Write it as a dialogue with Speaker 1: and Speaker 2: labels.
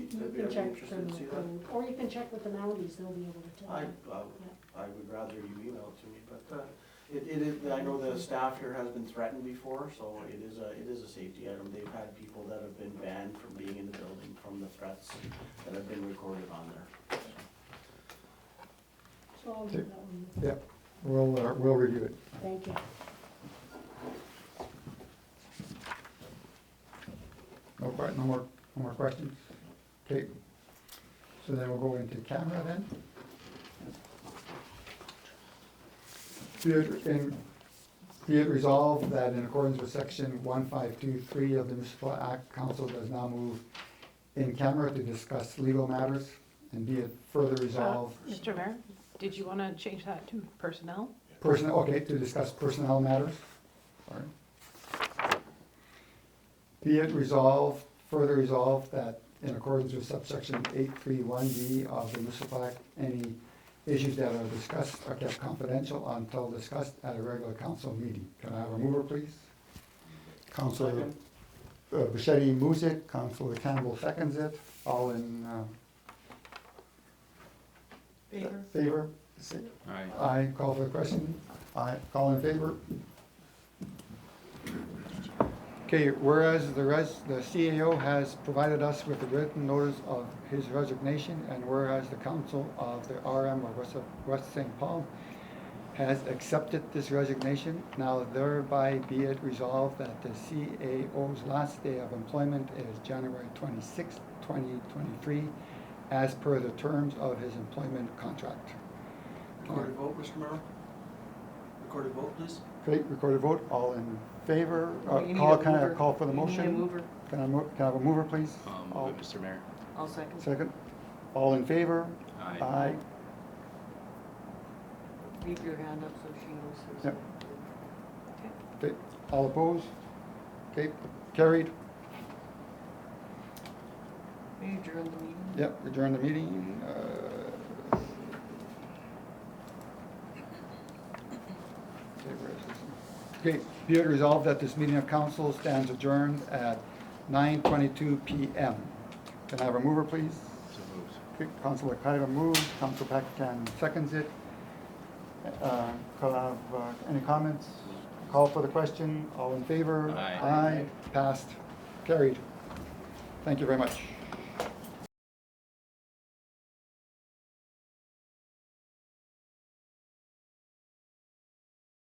Speaker 1: You
Speaker 2: I'd be
Speaker 1: can check
Speaker 2: interested to
Speaker 1: criminal
Speaker 2: see that.
Speaker 1: code, or you can check with the Mounties, they'll be able to tell
Speaker 2: I,
Speaker 1: you.
Speaker 2: I would- I would rather you email it to me, but uh, it, it is, I know the staff here has been threatened before, so it is a, it is a safety item. They've had people that have been banned from being in the building from the threats that have been recorded on there.
Speaker 1: So I'll leave that one,
Speaker 3: Yeah, we'll, uh, we'll review it.
Speaker 1: thank you.
Speaker 3: No, que- no more, no more questions? Okay, so then we'll go into camera then. Be it, in, be it resolved that in accordance with section one five two three of the municipal act, council does now move in camera to discuss legal matters, and be it further resolved,
Speaker 4: Uh, Mr. Mayor, did you want to change that to personnel?
Speaker 3: personnel, okay, to discuss personnel matters. Sorry. Be it resolved, further resolved that in accordance with subsection eight three one B of the municipal act, any issues that are discussed are kept confidential until discussed at a regular council meeting. Can I have a mover, please? Counselor
Speaker 2: Second.
Speaker 3: uh, Bichetti moves it, Counselor Campbell seconds it, all in uh, favor? Say-
Speaker 5: Aye.
Speaker 3: Aye, call for the question. Aye, call in favor. Okay, whereas the res, the CAO has provided us with a written notice of his resignation, and whereas the council of the RM of West, West St. Paul has accepted this resignation, now thereby be it resolved that the CAO's last day of employment is January twenty-sixth, twenty twenty-three, as per the terms of his employment contract.
Speaker 2: Recorded vote, Mr. Merrill? Recorded vote, please?
Speaker 3: Great, recorded vote, all in favor, Uh,
Speaker 4: You need
Speaker 3: call,
Speaker 4: a
Speaker 3: can I
Speaker 4: mover.
Speaker 3: call for the
Speaker 4: You need a
Speaker 3: motion?
Speaker 4: mover.
Speaker 3: Can I move, can I have a mover, please?
Speaker 5: I'll
Speaker 3: All-
Speaker 5: move it, Um, Mr. Mayor.
Speaker 4: I'll second.
Speaker 3: Second, all in favor?
Speaker 5: Aye.
Speaker 3: Aye,
Speaker 6: Leave your hand up so she knows.
Speaker 3: Yep.
Speaker 6: who's-
Speaker 3: okay, all opposed? Okay, carried,
Speaker 6: Will you adjourn the meeting?
Speaker 3: yep, adjourn the meeting, uh. okay, where is this? Okay, be it resolved that this meeting of council stands adjourned at nine twenty-two PM. Can I have a mover, please?
Speaker 5: So moved.
Speaker 3: Okay, Councilor Kaiba moves, Council Pactan seconds it. Uh, Call have, uh, any comments? Call for the question, all in favor?
Speaker 5: Aye.
Speaker 3: Aye, passed, carried. Thank you very much.